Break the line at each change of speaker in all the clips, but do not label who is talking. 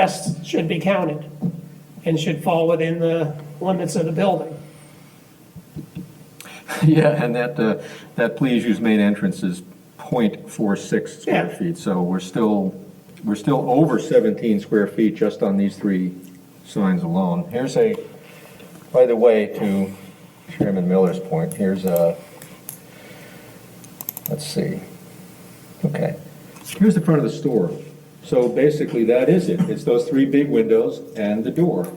rest should be counted and should fall within the limits of the building.
Yeah, and that, uh, that please use main entrance is 0.46 square
Yeah.
feet, so we're still, we're still over 17 square feet just on these three signs alone. Here's a, by the way, to Chairman Miller's point, here's a, let's see, okay. Here's the front of the store. So basically, that is it. It's those three big windows and the door.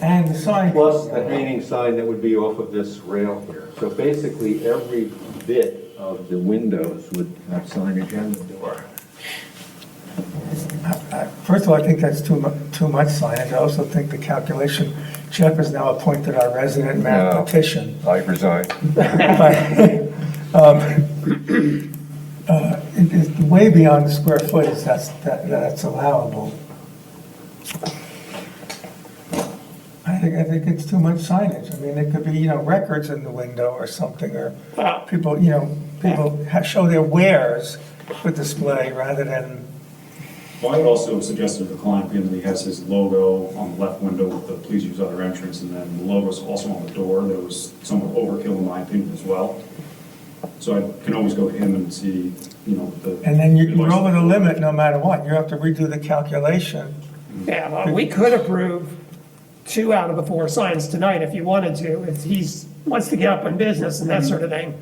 And the sign.
Plus the hanging sign that would be off of this rail here. So basically, every bit of the windows would have signage on the door.
I- First of all, I think that's too mu, too much signage. I also think the calculation, Jeff has now appointed our resident mathematician.
I resign.
But, um, uh, it is way beyond the square footage that's, that- that's allowable. I think, I think it's too much signage. I mean, it could be, you know, records in the window or something, or
Well,
people, you know, people ha- show their wares for display rather than
Well, I would also suggest to the client, being that he has his logo on the left window with the please use other entrance, and then the logo's also on the door, that was somewhat overkill in my opinion as well. So I can always go to him and see, you know, the.
And then you- you're over the limit no matter what. You have to redo the calculation.
yeah, well, uh, we could approve two out of the four signs tonight if you wanted to, if he's, wants to get up in business and that sort of thing.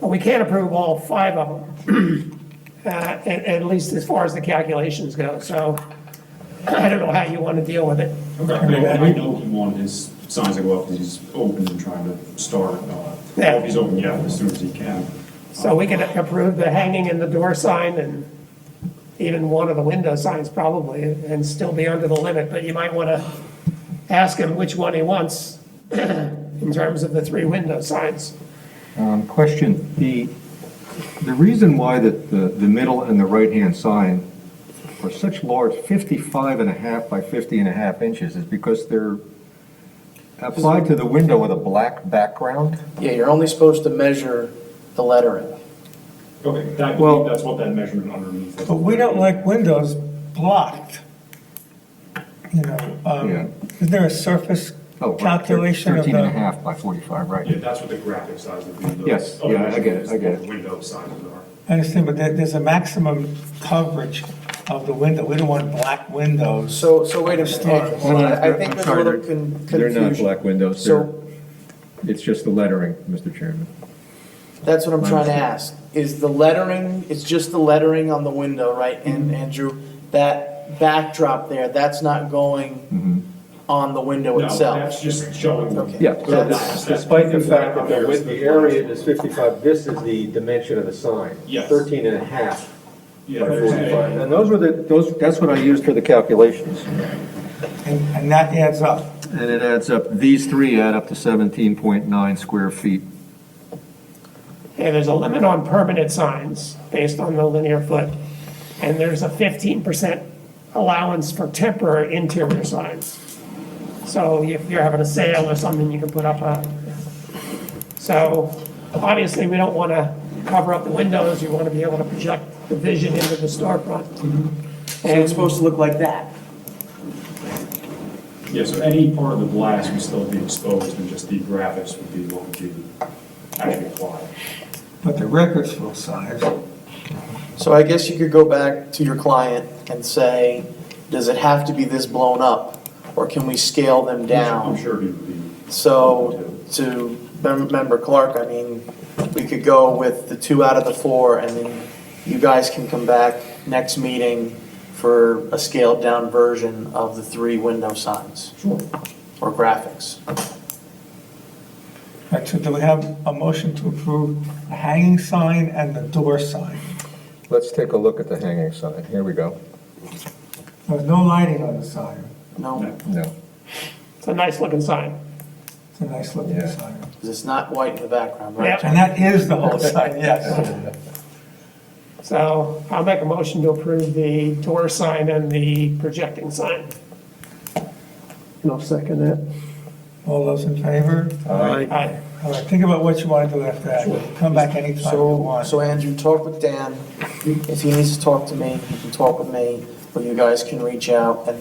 But we can't approve all five of them, uh, at, at least as far as the calculations go, so I don't know how you want to deal with it.
Okay, I I know he wanted his signs to go up, 'cause he's open and trying to start, uh,
Yeah.
well, he's open, yeah, as soon as he can.
So we can approve the hanging and the door sign and even one of the window signs probably, and still be under the limit, but you might want to ask him which one he wants in terms of the three window signs.
Um, question, the, the reason why that the, the middle and the right-hand sign are such large, 55 and a half by 50 and a half inches, is because they're applied to the window with a black background?
Yeah, you're only supposed to measure the lettering.
Okay, that,
Well-
that's what that measurement underneath.
But we don't like windows blocked. You know,
Yeah.
um, is there a surface
Oh, right, they're
calculation of
13 and a
the?
half by 45,
Yeah,
right.
that's what the graphic size would be. the-
Yes, yeah, I get it, I get it.
Window signs are.
I understand, but there, there's a maximum coverage of the window. We don't want black windows.
So, so wait a minute, Ed, hold on. I think
I'm
there's a
sorry,
little
they're-
con-
They're not
confusion.
black windows, they're,
So
it's just the lettering, Mr. Chairman.
that's what I'm trying to ask. Is the lettering, it's just the lettering on the window, right?
Mm-hmm.
And Andrew, that backdrop there, that's not
Mm-hmm.
going on the window
No,
itself.
that's just showing.
Okay.
Yeah, so
That's-
this- despite the fact that the width, the area is 55, this is the dimension of the sign.
Yes.
13 and a half
Yeah,
by
there's
45.
a-
And those were the, those, that's what I used for the calculations.
And, and that adds up.
And it adds up, these three add up to 17.9 square feet.
Okay, there's a limit on permanent signs based on the linear foot, and there's a fifteen percent allowance for temporary interior signs. So if you're having a sale or something, you can put up a, so obviously, we don't want to cover up the windows, you want to be able to project the vision into the storefront.
So it's supposed to look like that.
Yeah, so any part of the glass would still be exposed, and just the graphics would be what would be actually applied.
But the record's full size.
So I guess you could go back to your client and say, does it have to be this blown up? Or can we scale them down?
I'm sure he would be.
So to mem- member Clark, I mean, we could go with the two out of the four and then you guys can come back next meeting for a scaled down version of the three window signs
Sure.
or graphics.
Right, so do we have a motion to approve the hanging sign and the door sign?
Let's take a look at the hanging sign. Here we go.
There's no lighting on the sign.
No,
No.
No.
It's a nice looking sign.
It's a nice looking
Yeah.
sign.
'cause it's not white in the background, right?
Yep.
And that is the whole sign, yes.
So I'll make a motion to approve the door sign and the projecting sign. And I'll second that.
All those in favor?
Aye.
All right, think about what you want to do after that. Come back anytime you
So,
want.
so Andrew, talk with Dan. If he needs to talk to me, he can talk with me, or you guys can reach out and